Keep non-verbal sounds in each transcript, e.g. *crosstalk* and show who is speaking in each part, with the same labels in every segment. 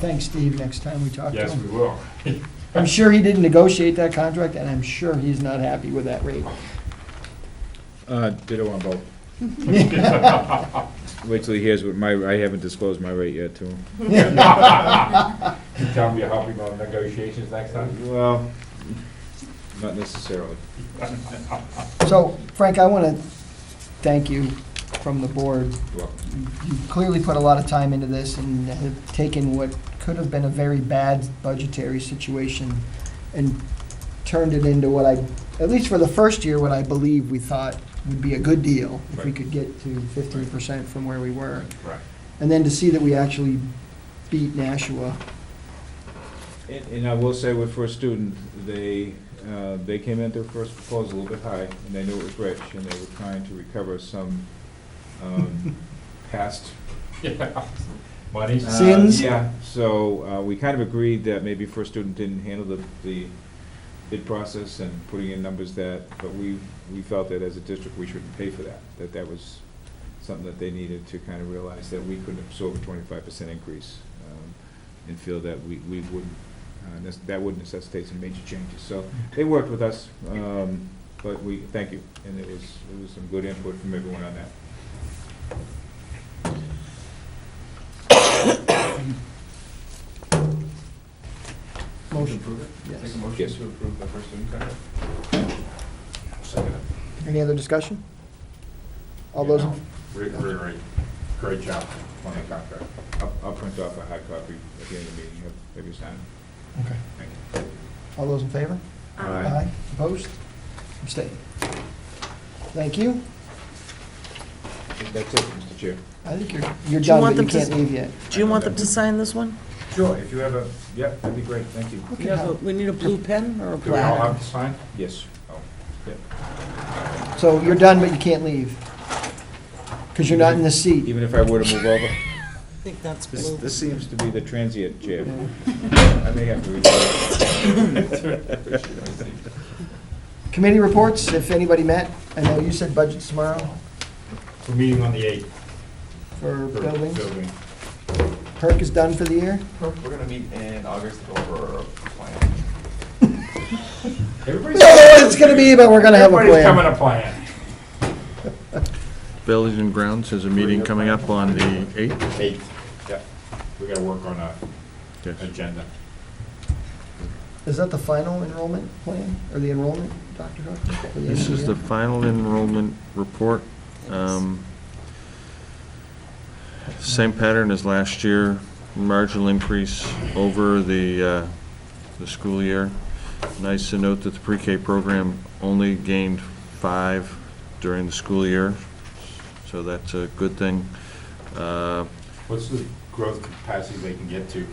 Speaker 1: Thanks, Steve, next time we talk to
Speaker 2: Yes, we
Speaker 1: him.
Speaker 2: will.
Speaker 1: I'm sure he didn't negotiate that contract, and I'm sure he's not happy with that rate.
Speaker 3: Uh, ditto on both. Wait till he hears what my, I haven't disclosed my rate yet to him.
Speaker 2: You Tell me you're helping on negotiations next *laughs* time.
Speaker 3: Well, not necessarily.
Speaker 1: So Frank, I want to thank you from the board.
Speaker 3: Well,
Speaker 1: You clearly put a lot of time into this and have taken what could have been a very bad budgetary situation and turned it into what I, at least for the first year, what I believe we thought would be a good deal if we
Speaker 3: Right.
Speaker 1: could get to fifteen percent from where we were.
Speaker 2: Right.
Speaker 1: And then to see that we actually beat Nashua.
Speaker 3: And, and I will say with First Student, they, uh, they came in their first proposal a little bit high, and they knew it was rich, and they were trying to recover some, um, past
Speaker 2: Yeah. Money?
Speaker 3: Uh,
Speaker 1: Sins?
Speaker 3: Yeah, so uh, we kind of agreed that maybe First Student didn't handle the, the bid process and putting in numbers that, but we, we felt that as a district, we shouldn't pay for that, that that was something that they needed to kind of realize that we couldn't absorb a twenty-five percent increase um, and feel that we, we wouldn't, uh, nec- that would necessitate some major changes. So they worked with us, um, but we, thank you, and it was, it was some good input from everyone on that.
Speaker 1: Motion.
Speaker 2: approve it?
Speaker 1: Yes.
Speaker 2: Take a motion
Speaker 3: Yes.
Speaker 2: to approve the first student contract?
Speaker 1: Any other discussion? All those, in-
Speaker 2: Great, great, great. Great job on the contract.
Speaker 3: I'll, I'll print off a hard copy at the end of the meeting, have you signed?
Speaker 1: Okay.
Speaker 3: Thank you.
Speaker 1: all those in favor?
Speaker 3: Aye.
Speaker 1: Opposed? Abstained. Thank you.
Speaker 3: That's it, Mr. Chair.
Speaker 1: I think you're, you're
Speaker 4: Do you
Speaker 1: done,
Speaker 4: want
Speaker 1: but you
Speaker 4: them to
Speaker 1: can't
Speaker 4: s-
Speaker 1: leave yet.
Speaker 4: Do you want them to sign this one?
Speaker 3: Sure, if you have a, yeah, that'd be great, thank you.
Speaker 1: Look
Speaker 4: We
Speaker 1: at
Speaker 4: have a-
Speaker 1: how-
Speaker 4: we need a blue pen or a
Speaker 2: Do we all
Speaker 4: black?
Speaker 2: have to sign?
Speaker 3: Yes. Oh, yeah.
Speaker 1: So you're done, but you can't leave. Because you're not in the seat.
Speaker 3: Even if I were to move over,
Speaker 4: I think that's
Speaker 3: this,
Speaker 4: blue.
Speaker 3: this seems to be the transient chair.
Speaker 1: Yeah.
Speaker 3: I may have to retire.
Speaker 1: Committee reports, if anybody met, I know you said budget tomorrow
Speaker 2: We're meeting on the eighth.
Speaker 1: for buildings.
Speaker 2: Building.
Speaker 1: Perk is done for the year.
Speaker 5: We're gonna meet in August to go over our plan.
Speaker 2: Everybody's.
Speaker 1: No, it's gonna be, but we're gonna have a
Speaker 2: Everybody's
Speaker 1: plan.
Speaker 2: coming a plan.
Speaker 6: Buildings and Grounds has a meeting coming up on the 8th.
Speaker 2: Eight. Yeah. We gotta work on a agenda.
Speaker 1: Is that the final enrollment plan, or the enrollment, Dr. Hook? for end
Speaker 6: This
Speaker 1: of
Speaker 6: is the
Speaker 1: year?
Speaker 6: final enrollment report. Um, Same pattern as last year, marginal increase over the, uh, the school year. Nice to note that the pre-K program only gained five during the school year, so that's a good thing. Uh,
Speaker 2: What's the growth capacity they can get to?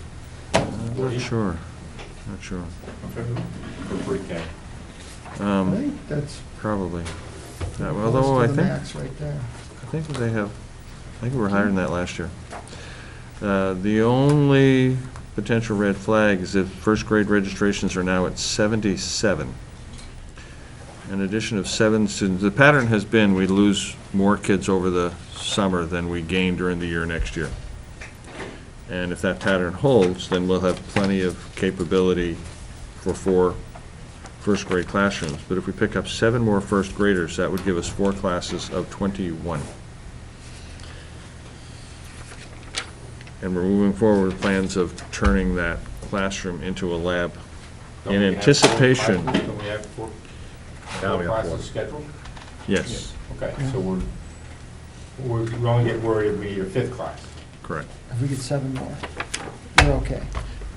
Speaker 6: Not sure, not sure,
Speaker 2: For pre-K.
Speaker 1: I
Speaker 6: Um,
Speaker 1: think that's
Speaker 6: probably. Uh,
Speaker 1: close
Speaker 6: Although
Speaker 1: to
Speaker 6: I
Speaker 1: the
Speaker 6: think
Speaker 1: max right there.
Speaker 6: I think they have, I think we were higher than that last year. Uh, The only potential red flag is if first grade registrations are now at 77. An addition of seven students, the pattern has been we lose more kids over the summer than we gain during the year next year. And if that pattern holds, then we'll have plenty of capability for four first grade classrooms. But if we pick up seven more first graders, that would give us four classes of 21. And we're moving forward with plans of turning that classroom into a lab.
Speaker 2: Don't
Speaker 6: In
Speaker 2: we have four
Speaker 6: anticipation-
Speaker 2: classes? Don't we have four,
Speaker 6: Now
Speaker 2: four
Speaker 6: we have four.
Speaker 2: classes scheduled?
Speaker 6: Yes,
Speaker 2: Okay, so we're, we're, we only get worried if we need a fifth class.
Speaker 6: correct.
Speaker 1: If we get seven more, we're okay.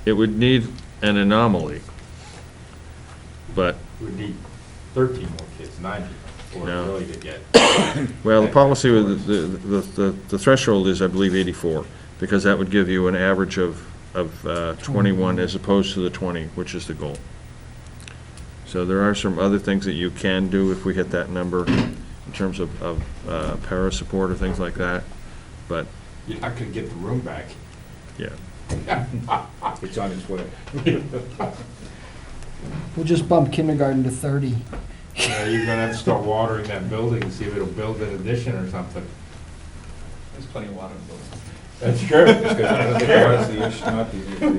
Speaker 6: It would need an anomaly, but
Speaker 2: We need thirteen more kids, nine people, or
Speaker 6: No.
Speaker 2: really to get.
Speaker 6: Well, the policy, with the, the, the- the threshold is, I believe, 84, because that would give you an average of, of uh, 21 as opposed to the 20, which is the goal. So there are some other things that you can do if we hit that number in terms of, of uh, para support or things like that, but,
Speaker 2: You're not gonna get the room back.
Speaker 6: yeah.
Speaker 3: It's on its way.
Speaker 1: We'll just bump kindergarten to thirty.
Speaker 2: You know, You're gonna have to start watering that building, see if it'll build an addition or something.
Speaker 5: There's plenty of water in the building.
Speaker 3: That's true. Because otherwise the issue, not the-